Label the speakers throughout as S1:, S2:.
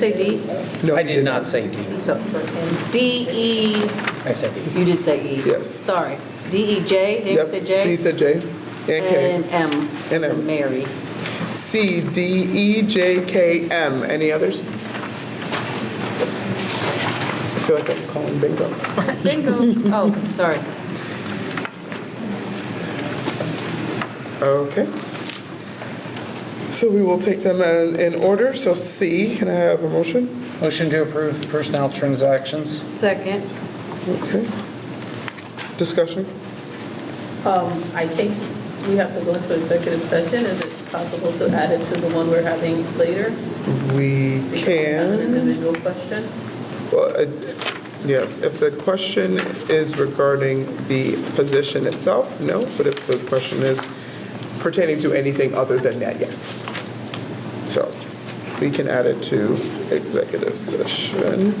S1: Say D,
S2: No,
S3: I
S2: you
S3: did not say D.
S1: so, and D, E,
S3: I said E.
S1: you did say E.
S2: Yes.
S1: Sorry. D, E, J,
S2: Yep,
S1: David said J.
S2: He said J. And K.
S1: And M,
S2: And
S1: so
S2: M.
S1: Mary.
S2: C, D, E, J, K, M. Any others? I feel like I'm calling bingo.
S1: Bingo. Oh, sorry.
S2: Okay. So we will take them in in order. So C, can I have a motion?
S3: Motion to approve personnel transactions.
S1: Second.
S2: Okay. Discussion?
S4: Um, I think we have to go into executive session. Is it possible to add it to the one we're having later?
S2: We
S4: We Have an
S2: can.
S4: individual question?
S2: Well, uh, Yes, if the question is regarding the position itself, no. But if the question is pertaining to anything other than that, yes. So we can add it to executive session.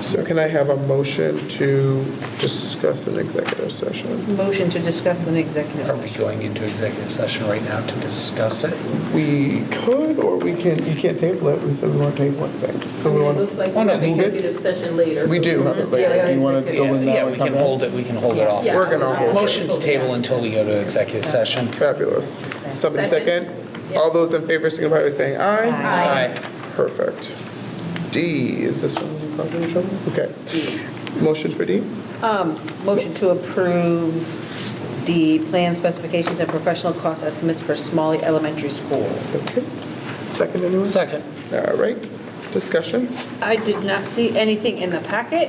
S2: So can I have a motion to discuss an executive session?
S1: Motion to discuss an executive
S3: Are we
S1: session.
S3: going into executive session right now to discuss it?
S2: We could, or we can, you can't table it, we said we want to table it, thanks. So we
S4: It
S2: want
S4: looks
S2: to,
S4: like
S3: Oh,
S4: we
S3: no,
S4: have
S3: move it.
S4: executive session later.
S3: We do.
S4: Yeah, yeah,
S5: You want to go in now?
S3: Yeah,
S5: and
S3: we
S5: come
S3: can
S5: back?
S3: hold it, we can hold it off.
S4: Yeah.
S2: We're gonna hold it.
S3: Motion to table until we go to executive session.
S2: fabulous. Somebody
S4: Second.
S2: second? All those in favor signify by saying aye.
S3: Aye.
S2: Perfect. D, is this one causing you trouble? Okay. Motion for D?
S1: Um, Motion to approve the plan specifications and professional cost estimates for Smalley Elementary School.
S2: Okay. Second, anyone?
S3: Second.
S2: All right, discussion?
S1: I did not see anything in the packet.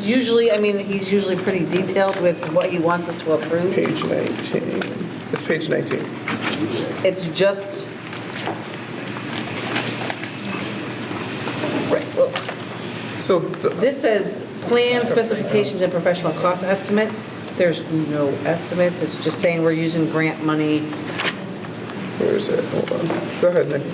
S1: Usually, I mean, he's usually pretty detailed with what he wants us to approve.
S2: Page 19. It's page 19.
S1: It's just. Right, well,
S2: So the-
S1: this says plan specifications and professional cost estimates. There's no estimates, it's just saying we're using grant money.
S2: where is it? Hold on. Go ahead, Nikki.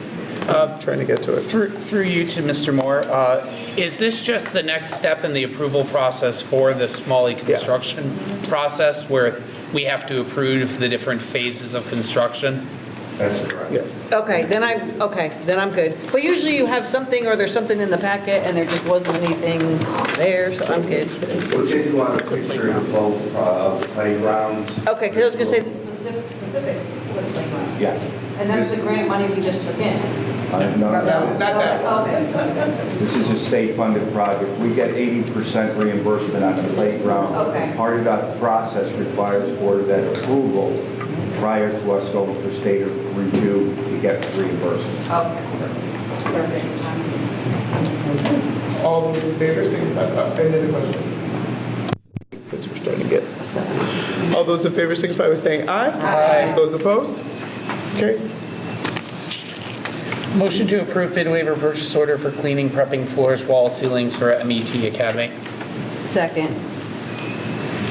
S2: I'm trying to get to it.
S3: Through, through you to Mr. Moore, uh, is this just the next step in the approval process for the Smalley construction process where we have to approve the different phases of construction?
S2: Yes.
S1: Okay, then I, okay, then I'm good. But usually you have something, or there's something in the packet, and there just wasn't anything there, so I'm good.
S6: We did want a picture of both uh, the playgrounds.
S1: Okay, because I was going to say the specific, specific was the playground.
S6: Yeah.
S1: And that's the grant money we just took in.
S6: Uh, No,
S2: Not that.
S1: Okay,
S6: this is a state-funded project. We get 80% reimbursement on the playground.
S1: Okay.
S6: Part of that process requires Board of Ed approval prior to us going for state review to get reimbursement.
S1: perfect.
S2: All those in favor, signify by, any other questions? Because we're starting to get. All those in favor, signify by saying aye. Aye. Those opposed? Okay,
S3: Motion to approve bid waiver purchase order for cleaning, prepping floors, wall ceilings for MET Academy.
S1: Second,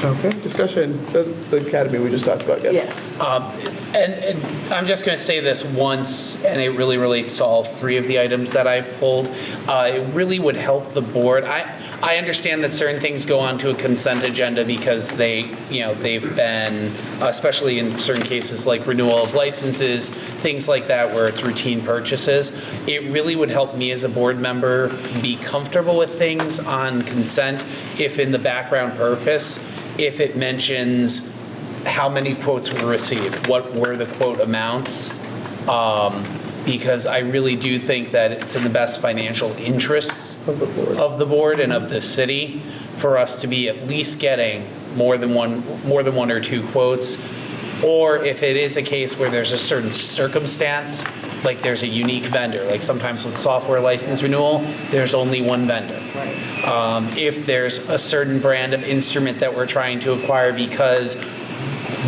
S2: okay, discussion, That's the academy we just talked about, yes?
S1: yes.
S3: And, and I'm just going to say this once, and it really relates to all three of the items that I pulled. Uh, it really would help the board. I, I understand that certain things go onto a consent agenda because they, you know, they've been, especially in certain cases like renewal of licenses, things like that where it's routine purchases. It really would help me as a board member be comfortable with things on consent if in the background purpose, if it mentions how many quotes were received, what were the quote amounts, um, because I really do think that it's in the best financial interests
S2: Of the board.
S3: of the board and of the city for us to be at least getting more than one, more than one or two quotes. Or if it is a case where there's a certain circumstance, like there's a unique vendor, like sometimes with software license renewal, there's only one vendor. Um, If there's a certain brand of instrument that we're trying to acquire because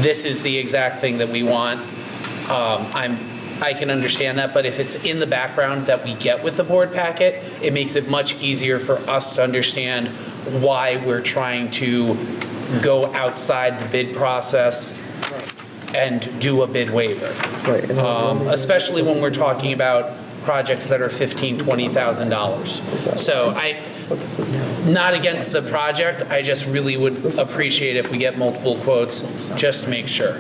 S3: this is the exact thing that we want. Um, I'm, I can understand that, but if it's in the background that we get with the board packet, it makes it much easier for us to understand why we're trying to go outside the bid process and do a bid waiver.
S2: Right, and-
S3: Um, Especially when we're talking about projects that are $15,000, $20,000. So I, not against the project, I just really would appreciate if we get multiple quotes, just to make sure.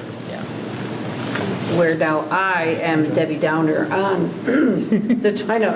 S1: where now I am Debbie Downer on the China